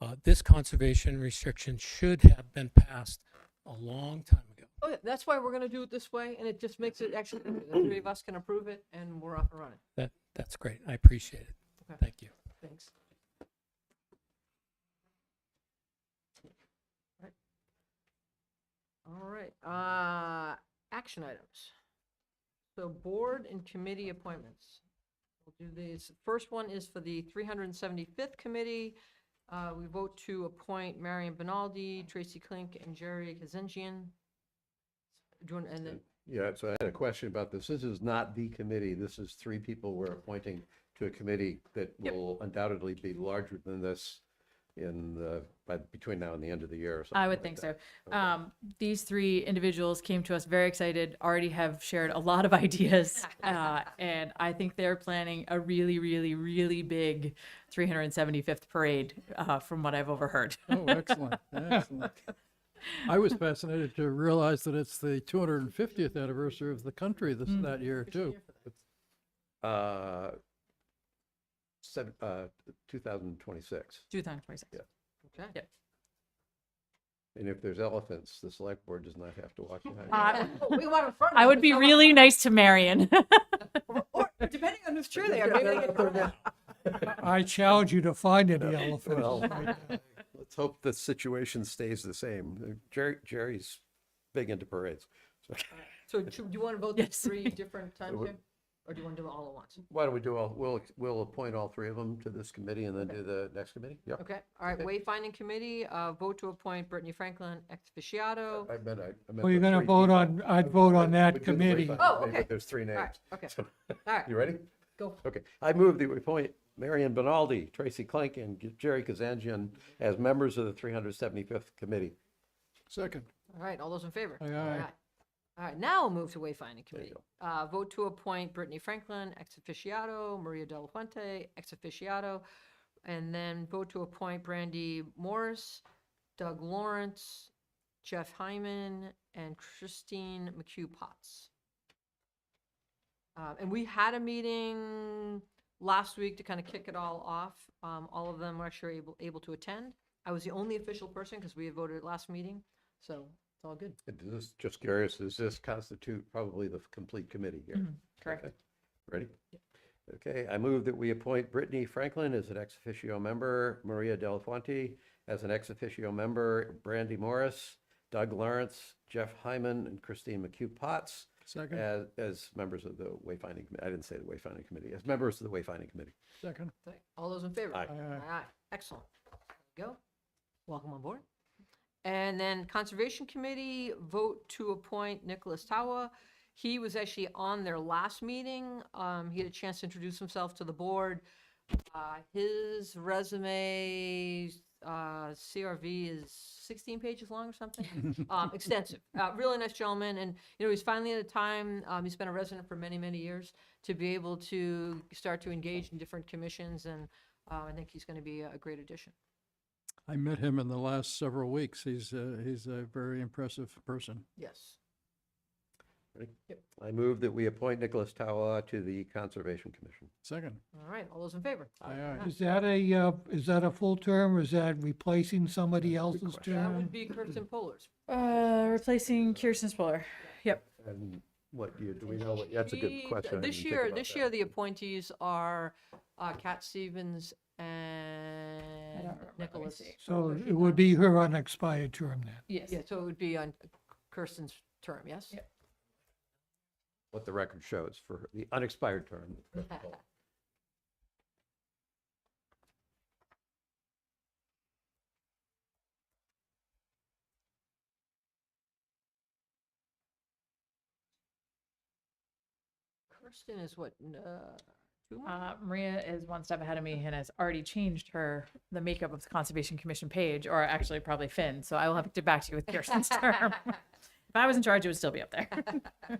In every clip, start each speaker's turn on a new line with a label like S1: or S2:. S1: uh, this conservation restriction should have been passed a long time ago.
S2: Okay, Oh, that's why we're gonna do it this way, and it just makes it actually, easier. the three of us can approve it, and we're off and running.
S1: That, that's great. I appreciate it.
S2: Okay.
S1: Thank you.
S2: Thanks. Right. All right, uh, action items. So board and committee appointments. We'll do these. First one is for the 375th Committee. Uh, We vote to appoint Marion Benaldi, Tracy Klink, and Jerry Kazengian. Do you want, and then,
S3: Yeah, so I had a question about this. This is not the committee. This is three people we're appointing to a committee that
S2: Yep.
S3: will undoubtedly be larger than this in the, by, between now and the end of the year or something.
S4: I would
S3: like
S4: think so.
S3: that.
S4: Um, these three individuals came to us very excited, already have shared a lot of ideas. Uh, and I think they're planning a really, really, really big 375th parade, uh, from what I've overheard.
S5: Oh, excellent, excellent. I was fascinated to realize that it's the 250th anniversary of the country this,
S6: Hmm.
S5: that year too.
S3: Uh, seven, uh, 2026.
S4: 2026.
S3: Yeah.
S2: okay.
S4: Yep.
S3: And if there's elephants, the select board does not have to walk behind. them.
S4: I-
S2: Oh, We want in front of
S4: I
S2: them,
S4: would be
S2: someone-
S4: really nice to Marion.
S2: Or, depending on who's chair they are, maybe they can.
S6: I challenge you to find any
S3: Well,
S6: elephants.
S3: Let's hope the situation stays the same. Jerry, Jerry's big into parades. So
S2: So do do you want to vote these three different times
S3: would-
S2: here? Or do you want to do it all at once?
S3: Why don't we do all, we'll, we'll appoint all three of them to this committee and then do the next committee? Yeah.
S2: Okay, all right, wayfinding committee, uh, vote to appoint Brittany Franklin ex officio.
S3: I meant, I- I meant.
S6: Well, you're
S3: the
S6: gonna
S3: three
S6: vote
S3: people.
S6: on, I'd
S3: I-
S6: vote
S3: I
S6: on that
S3: would do the
S6: committee.
S3: wayfinding
S2: Oh,
S3: committee,
S2: okay.
S3: but There's three
S2: right,
S3: names.
S2: okay.
S3: So-
S2: All right,
S3: You ready?
S2: go.
S3: Okay. I move that we appoint Marion Benaldi, Tracy Klink, and G- Jerry Kazanjian as members of the 375th Committee.
S5: Second,
S2: All right, all those in favor?
S5: Aye, aye.
S2: All right, now we'll move to wayfinding committee.
S3: go.
S2: Uh, vote to appoint Brittany Franklin ex officio, Maria Del Fuente ex officio, and then vote to appoint Brandy Morris, Doug Lawrence, Jeff Hyman, and Christine McHugh Potts. Uh, And we had a meeting last week to kind of kick it all off. Um, All of them were actually able, able to attend. I was the only official person because we had voted at last meeting, so it's all good.
S3: And This, is just curious, does this constitute probably the complete committee here?
S2: Mm-hmm.
S4: Correct.
S3: Okay. Ready? Okay, I move that we appoint Brittany Franklin as an ex officio member, Maria Del Fuente as an ex officio member, Brandy Morris, Doug Lawrence, Jeff Hyman, and Christine McHugh Potts
S5: second,
S3: as, as members of the Wayfinding, Commi- I didn't say the Wayfinding Committee, as members of the Wayfinding Committee.
S5: second.
S2: Thank- All those in favor?
S3: Aye.
S5: Aye, aye.
S2: Excellent. There you Go. Welcome on board. And then Conservation Committee, vote to appoint Nicholas Tawa. He was actually on their last meeting. Um, He had a chance to introduce himself to the board. Uh, His resume, uh, CRV is 16 pages long or something, Um, extensive. Uh, Really nice gentleman, and, you know, he's finally at a time, um, he's been a resident for many, many years, to be able to start to engage in different commissions, and uh, I think he's going to be a a great addition.
S5: I met him in the last several weeks. He's, uh, he's a very impressive person.
S2: Yes.
S3: Ready? I move that we appoint Nicholas Tawa to the Conservation Commission.
S5: Second,
S2: All right, all those in favor?
S5: aye, aye.
S6: Is that a, uh, is that a full term, or is that replacing somebody else's
S2: That would
S6: term?
S2: be Kirsten Polars.
S4: Uh, replacing Kirsten Spoiler. Yep.
S3: And what year, do we know what, that's a good
S2: She-
S3: question. I
S2: This
S3: didn't think
S2: year,
S3: about
S2: this
S3: that.
S2: year, the appointees are uh, Cat Stevens and
S4: remember. Let me
S2: Nicholas.
S4: see.
S6: So it would be her unexpired term then.
S4: Yes.
S2: Yeah, so it would be on Kirsten's term, yes?
S4: Yep.
S3: What the record shows for the unexpired term.
S2: Kirsten is what, n- uh, two months?
S4: Uh, Maria is one step ahead of me and has already changed her, the makeup of the Conservation Commission page, or actually probably Finn. So I will have to get back to you with Kirsten's term. If I was in charge, it would still be up there.
S2: Uh,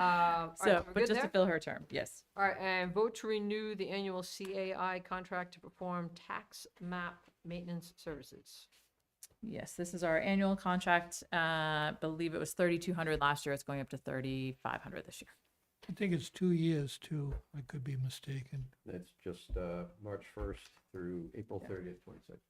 S2: all right,
S4: So,
S2: we're
S4: but
S2: good
S4: just to
S2: there?
S4: fill her term, yes.
S2: All right, and vote to renew the annual CAI contract to perform tax map maintenance services.
S4: Yes, this is our annual contract. Uh, I believe it was thirty-two hundred last year. It's going up to thirty-five hundred this year.
S6: I think it's two years too, I could be mistaken.
S3: It's just uh, March 1st through April 30th, 26th.